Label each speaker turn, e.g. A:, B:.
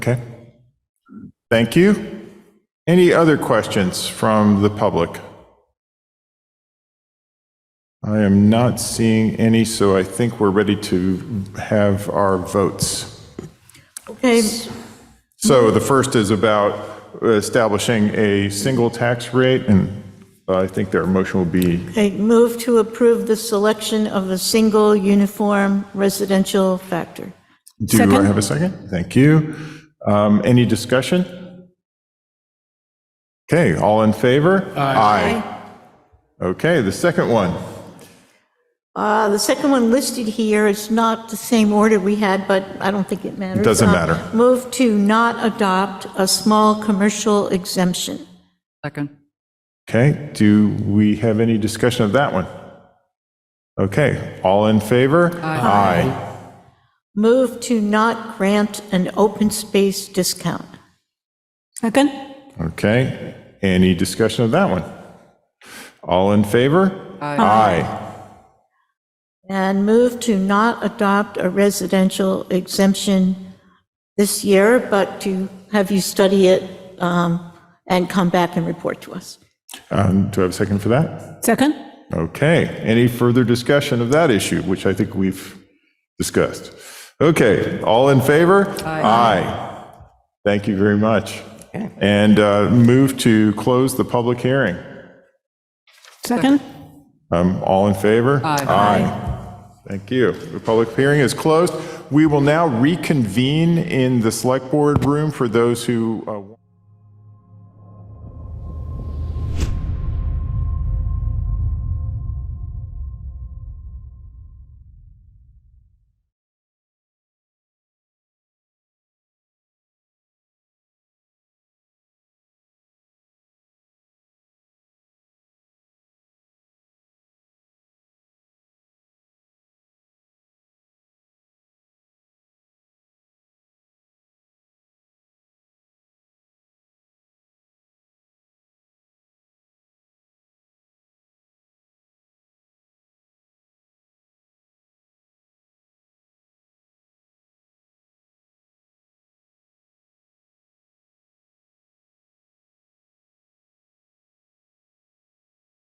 A: Okay. Thank you. Any other questions from the public? I am not seeing any, so I think we're ready to have our votes.
B: Okay,
A: So the first is about establishing a single tax rate, and I think their motion will be,
B: okay, move to approve the selection of a single uniform residential factor.
A: do I have a second? Thank you. Um, Any discussion? Okay, all in favor? Aye. Okay, the second one.
B: Uh, The second one listed here is not the same order we had, but I don't think it matters.
A: Doesn't
B: Uh,
A: matter.
B: Move to not adopt a small commercial exemption.
C: Second.
A: Okay, do we have any discussion of that one? Okay, all in favor? Aye.
B: Move to not grant an open space discount.
C: Second.
A: Okay, any discussion of that one? All in favor? Aye.
B: And move to not adopt a residential exemption this year, but to have you study it um, and come back and report to us.
A: Um, Do I have a second for that?
C: Second.
A: Okay, any further discussion of that issue, which I think we've discussed? Okay, all in favor? Aye. Thank you very much. And uh, move to close the public hearing.
C: Second.
A: Um, All in favor?
C: Aye.
A: Thank you. The public hearing is closed. We will now reconvene in the Select Board room for those who uh,